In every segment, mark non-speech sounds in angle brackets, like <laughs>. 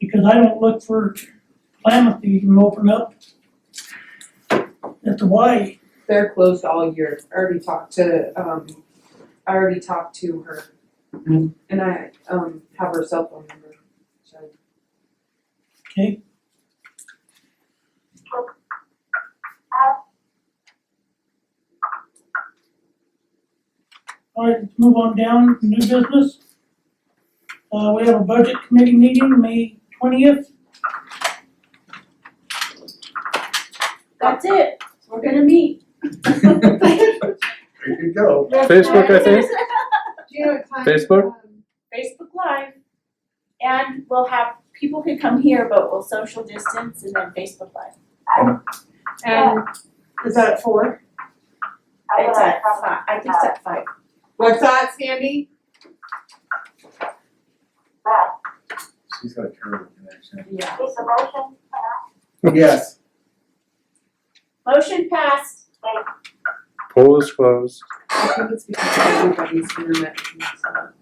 because I don't look for Klamath to even open up at the Y. They're closed all year. I already talked to, um, I already talked to her. Mhm. And I, um, have her cell phone number, so. Okay. Alright, let's move on down, new business. Uh, we have a budget committee meeting, May twentieth, That's it, we're gonna meet. There you go. Facebook, I think. Do you know what time? Facebook? um, Facebook Live. And we'll have, people can come here, but we'll social distance and then Facebook Live. And is that at four? It's at five, I think it's at five. What's that, Sandy? She's got a terrible connection. Yeah. Yes. Motion passed. Poll is closed. I think it's because everybody's internet is messed up.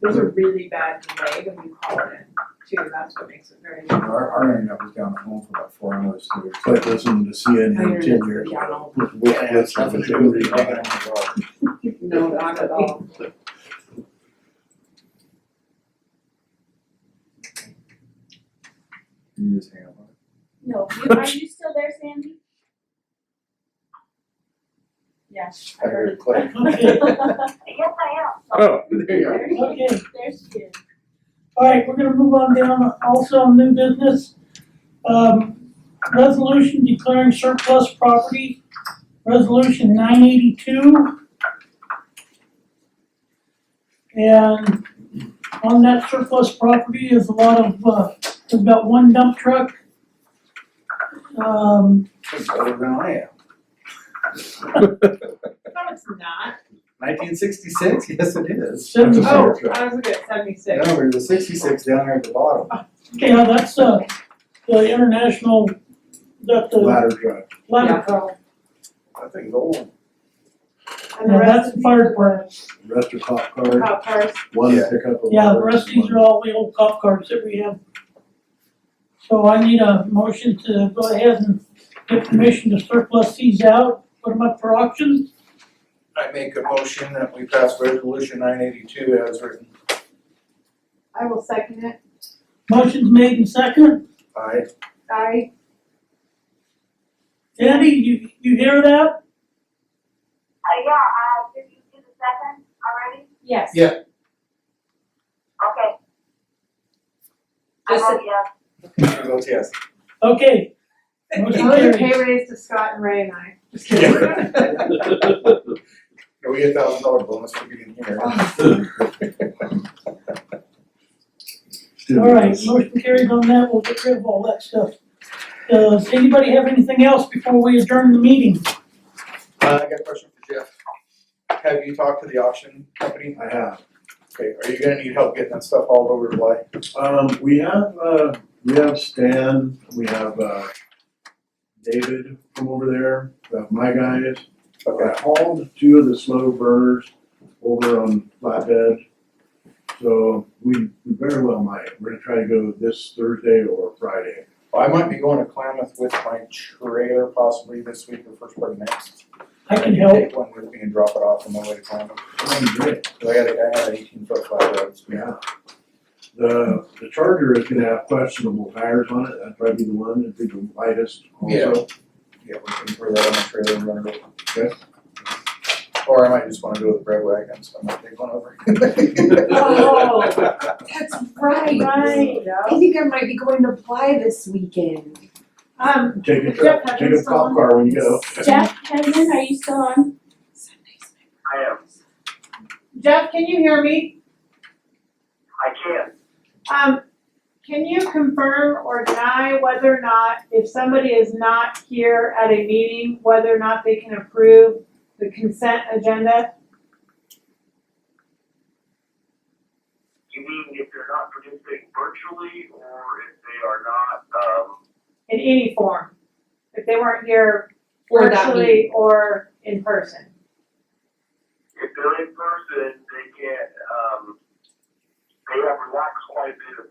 There's a really bad delay when you call it in, too, that's what makes it very. Our, our internet was down at home for about four hours, so it's like listening to CNN ten years ago. Yeah, it's nothing to do with the internet. No, not at all. You just hang up on No, <laughs> you, are you still there, Sandy? Yes, I it. I heard heard it click. okay, Oh, <laughs> There you go. it. okay. There she is. Alright, we're gonna move on down, also on new business. Um, resolution declaring surplus property, resolution nine eighty-two. And on that surplus property is a lot of, uh, we've got one dump truck. Um, It's older than I am. No, it's not. Nineteen sixty-six, <laughs> yes it is. Seventy- Oh, I was looking at seventy-six. No, there's a sixty-six down there at the bottom, okay, now that's, uh, the international, that the ladder truck. ladder truck, That thing's old. And the Yeah, rest that's of fire these are Rest of cop the car, cop cars. one Yeah. pickup. of Yeah, the ours, rest of these one- are all the old cop cars that we have. So I need a motion to go ahead and get permission to surplus these out, put them up for auction. I make a motion that we pass resolution nine eighty-two as written. I will second it. Motion's made in second. Aye. I, Sandy, you, you hear that? Uh, yeah, uh, did you do the second already? Yes. Yeah. Okay. I Just vote yes. I vote yes. Okay. I Motion was a carries. pay raise to Scott and Ray and I. Just kidding. Can <laughs> we get a thousand dollar bonus for being <laughs> here? Uh, All right, motion carries on that, we'll get rid of all that stuff. Uh, does anybody have anything else before we adjourn the meeting? Uh, I got a question for Jeff. Have you talked to the auction company? I have. Okay, are you gonna need help getting that stuff hauled over to Bly? Um, we have, uh, we have Stan, we have, uh, David from over there, we have my guys. Okay, I hauled two of the slow burners over on flatbed. So we, we very well might, we're gonna try to go this Thursday or Friday. Well, I might be going to Klamath with my trailer possibly this week or first part of next. I can help. Take one with me and drop it off on my way to Klamath. Sounds great. 'Cause I got a, I have an eighteen foot flat road. Yeah. The, the Charger is gonna have questionable tires on it, that'd probably be the one, that'd be the lightest also. Yeah, we can throw that on the trailer and run it over. Okay. Or I might just wanna go to the bread wagon, so I might take one over. <laughs> Oh. That's right. Right. I think I might be going to Bly this weekend. Um, Take a, Jeff truck- take a Hutchinson. cop car when you go. Jeff, Kevin, are you still on? Sundays. I am, Jeff, can you hear me? I can. Um, can you confirm or deny whether or not, if somebody is not here at a meeting, whether or not they can approve the consent agenda? You mean if they're not participating virtually or if they are not, um, in any form, if they weren't here Or that virtually or in person. if they're in person, they can't, um, they have relaxed quite a bit of that.